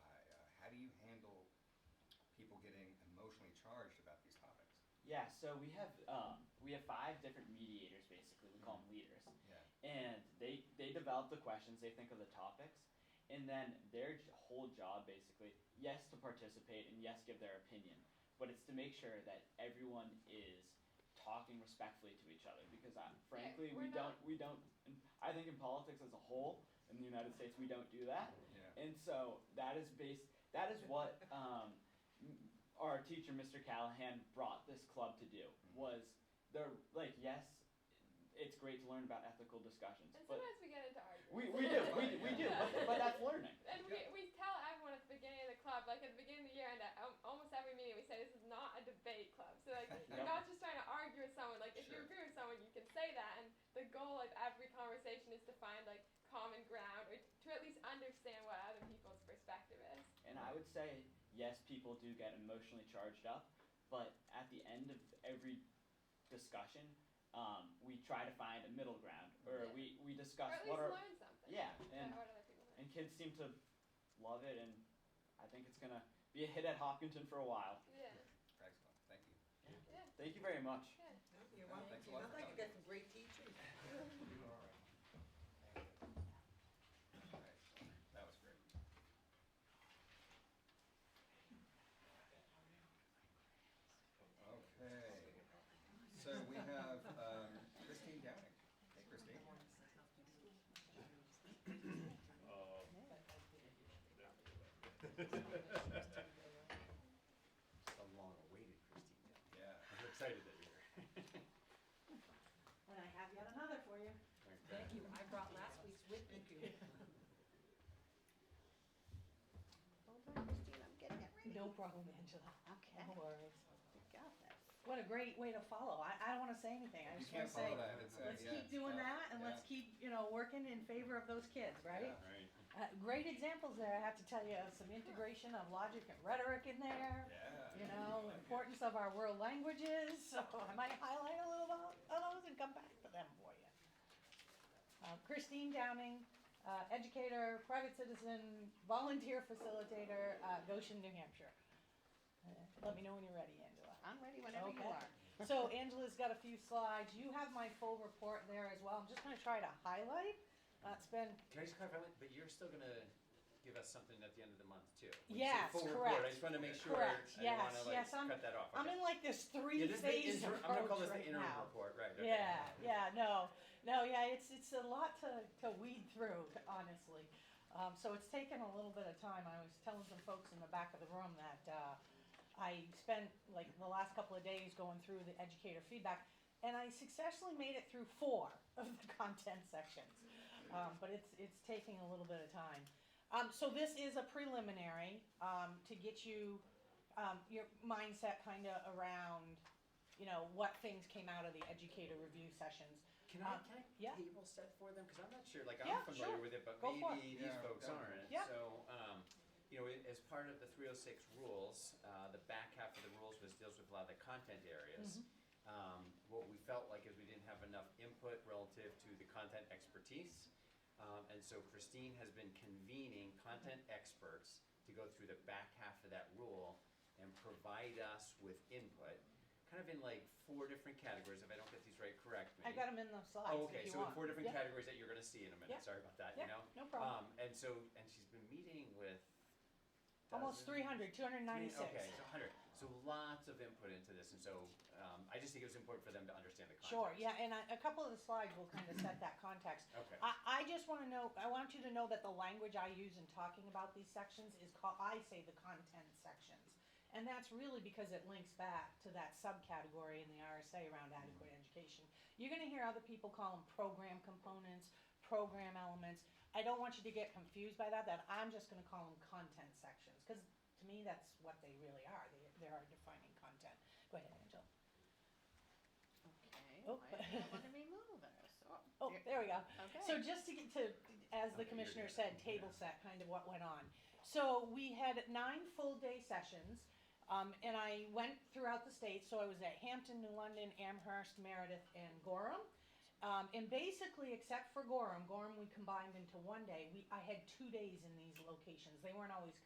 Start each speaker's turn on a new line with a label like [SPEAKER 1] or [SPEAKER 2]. [SPEAKER 1] Uh, handle people getting emotionally charged about these topics?
[SPEAKER 2] Yeah, so we have um, we have five different mediators basically. We call them leaders,
[SPEAKER 1] Yeah.
[SPEAKER 2] and they they develop the questions. They think of the topics, and then their j- whole job basically yes to participate and yes give their opinion, but it's to make sure that everyone is talking respectfully to each other because I, frankly
[SPEAKER 3] Yeah,
[SPEAKER 2] we
[SPEAKER 3] we're
[SPEAKER 2] don't
[SPEAKER 3] not-
[SPEAKER 2] we don't and I think in politics as a whole in the United States we don't do that.
[SPEAKER 1] Yeah.
[SPEAKER 2] And so that is based. That is what um, m- our teacher, Mr. Callahan, brought this club to do. Was there like yes, it's great to learn about ethical discussions,
[SPEAKER 3] And
[SPEAKER 2] but
[SPEAKER 3] sometimes we get into arguments.
[SPEAKER 2] we, we do we, we do, but, but that's learning.
[SPEAKER 3] And we, we tell everyone at the beginning of the club, like at the beginning of the year and at al- almost every meeting, we say this is not a debate club. So like
[SPEAKER 2] Yeah.
[SPEAKER 3] you're not just trying to argue with someone. Like if
[SPEAKER 1] Sure.
[SPEAKER 3] you agree with someone, you can say that. And the goal of every conversation is to find like common ground or to at least understand what other people's perspective is.
[SPEAKER 2] And I would say yes, people do get emotionally charged up, but at the end of every discussion, um, we try to find a middle ground, or
[SPEAKER 3] Yeah.
[SPEAKER 2] we we
[SPEAKER 3] Or
[SPEAKER 2] discuss
[SPEAKER 3] at
[SPEAKER 2] what
[SPEAKER 3] least
[SPEAKER 2] are
[SPEAKER 3] learn something.
[SPEAKER 2] yeah
[SPEAKER 3] about
[SPEAKER 2] and
[SPEAKER 3] what other people think.
[SPEAKER 2] and kids seem to love it and i think it's going to be a hit at hopkinton for a while
[SPEAKER 3] Yeah.
[SPEAKER 1] Excellent, thank you.
[SPEAKER 3] Yeah.
[SPEAKER 2] thank you very much
[SPEAKER 3] Yeah.
[SPEAKER 4] You're
[SPEAKER 1] No,
[SPEAKER 4] welcome.
[SPEAKER 1] thanks a lot
[SPEAKER 4] Sounds
[SPEAKER 1] for
[SPEAKER 4] like you
[SPEAKER 1] coming.
[SPEAKER 4] got some great teachers.
[SPEAKER 1] You are all right. All right, That was great. Okay, so we have um, Christine Downing. Hey Christine.
[SPEAKER 5] Um.
[SPEAKER 6] Uh,
[SPEAKER 5] the long-awaited Christine.
[SPEAKER 1] Yeah.
[SPEAKER 5] I'm excited that you're here.
[SPEAKER 7] And I have yet another for you.
[SPEAKER 4] Thank you. I brought last week's with me too.
[SPEAKER 8] Hold on, Christine, I'm getting it ready.
[SPEAKER 7] No problem, Angela.
[SPEAKER 8] Okay,
[SPEAKER 7] No worries.
[SPEAKER 8] you got this.
[SPEAKER 7] What a great way to follow. I, I don't wanna say anything. I
[SPEAKER 1] You
[SPEAKER 7] just wanna
[SPEAKER 1] can't follow
[SPEAKER 7] say,
[SPEAKER 1] that. It's, uh,
[SPEAKER 7] let's
[SPEAKER 1] yeah,
[SPEAKER 7] keep doing
[SPEAKER 1] yeah,
[SPEAKER 7] that and let's
[SPEAKER 1] yeah.
[SPEAKER 7] keep, you know, working in favor of those kids, right?
[SPEAKER 1] Yeah.
[SPEAKER 5] Right.
[SPEAKER 7] Uh, great examples there, I have to tell you, of some integration of logic and rhetoric in there.
[SPEAKER 1] Yeah.
[SPEAKER 7] You know, importance of our world languages, so I might highlight a little of those and come back to them for you. Uh, Christine Downing, uh, educator, private citizen, volunteer facilitator, uh, Goshen, New Hampshire. Uh, Let me know when you're ready, Angela.
[SPEAKER 8] I'm ready whenever you
[SPEAKER 7] Okay.
[SPEAKER 8] are.
[SPEAKER 7] So Angela's got a few slides. You have my full report there as well. I'm just gonna try to highlight. uh, That's been,
[SPEAKER 5] Can I just clarify, one- but you're still gonna give us something at the end of the month too? When you say
[SPEAKER 7] Yes,
[SPEAKER 5] full report,
[SPEAKER 7] correct.
[SPEAKER 5] I just wanna make sure, I
[SPEAKER 7] correct,
[SPEAKER 5] don't wanna
[SPEAKER 7] yes,
[SPEAKER 5] like
[SPEAKER 7] yes, I'm,
[SPEAKER 5] cut that off,
[SPEAKER 7] I'm
[SPEAKER 5] okay?
[SPEAKER 7] in like this
[SPEAKER 5] Yeah,
[SPEAKER 7] three
[SPEAKER 5] this is the
[SPEAKER 7] phase
[SPEAKER 5] interim-
[SPEAKER 7] approach right now.
[SPEAKER 5] I'm gonna call this the interim report, right, okay.
[SPEAKER 7] Yeah, yeah, no, no, yeah, it's, it's a lot to, to weed through, honestly. Um, so it's taken a little bit of time. I was telling some folks in the back of the room that, uh, I spent like the last couple of days going through the educator feedback and I successfully made it through four of the content sections. Um, but it's, it's taking a little bit of time. Um, so this is a preliminary, um, to get you, um, your mindset kind of around, you know, what things came out of the educator review sessions.
[SPEAKER 5] Can I,
[SPEAKER 7] Uh,
[SPEAKER 5] can
[SPEAKER 7] yeah.
[SPEAKER 5] I table set for them? Cause I'm not sure, like,
[SPEAKER 7] Yeah,
[SPEAKER 5] I'm
[SPEAKER 7] sure.
[SPEAKER 5] familiar with it, but
[SPEAKER 7] Go for it.
[SPEAKER 5] maybe these
[SPEAKER 1] Yeah,
[SPEAKER 5] folks
[SPEAKER 1] yeah.
[SPEAKER 5] aren't.
[SPEAKER 7] Yeah.
[SPEAKER 5] So, um, you know, as part of the three oh six rules, uh, the back half of the rules was deals with a lot of the content areas.
[SPEAKER 7] Mm-hmm.
[SPEAKER 5] Um, what we felt like is we didn't have enough input relative to the content expertise. Um, and so Christine has been convening content
[SPEAKER 7] Mm-hmm.
[SPEAKER 5] experts to go through the back half of that rule and provide us with input, kind of in like four different categories. If I don't get these right, correct me.
[SPEAKER 7] I got them in the slides if
[SPEAKER 5] Oh,
[SPEAKER 7] you
[SPEAKER 5] okay, so in
[SPEAKER 7] want.
[SPEAKER 5] four different
[SPEAKER 7] Yeah.
[SPEAKER 5] categories that you're gonna see in a
[SPEAKER 7] Yeah.
[SPEAKER 5] minute, sorry about that,
[SPEAKER 7] Yeah,
[SPEAKER 5] you know?
[SPEAKER 7] no problem.
[SPEAKER 5] Um, and so, and she's been meeting with.
[SPEAKER 7] Almost
[SPEAKER 5] dozens-
[SPEAKER 7] 300,
[SPEAKER 5] Okay,
[SPEAKER 7] 296.
[SPEAKER 5] so uh, hundred, so lots of input into this, and so, um, I just think it was important for them to understand the context.
[SPEAKER 7] Sure, yeah, and I- a couple of the slides will kind of set that context.
[SPEAKER 5] Okay.
[SPEAKER 7] I, I just want to know, I want you to know that the language I use in talking about these sections is called, I say the content sections. And that's really because it links back to that subcategory in the RSA around adequate education. You're going to hear other people call them program components, program elements. I don't want you to get confused by that, that I'm just going to call them content sections, because to me, that's what they really are. They, they are defining content. Go ahead, Angela.
[SPEAKER 8] Okay,
[SPEAKER 7] Oh.
[SPEAKER 8] why do you want to remove this?
[SPEAKER 7] Oh, there we go.
[SPEAKER 8] Okay.
[SPEAKER 7] So just to get to, as the
[SPEAKER 5] Okay,
[SPEAKER 7] commissioner
[SPEAKER 5] you're good.
[SPEAKER 7] said, table set, kind of what went on. So we had nine full day sessions, um, and I went throughout the state, so I was at Hampton, New London, Amherst, Meredith, and Gorham. Um, and basically, except for Gorham, Gorham we combined into one day, we, I had two days in these locations, they weren't always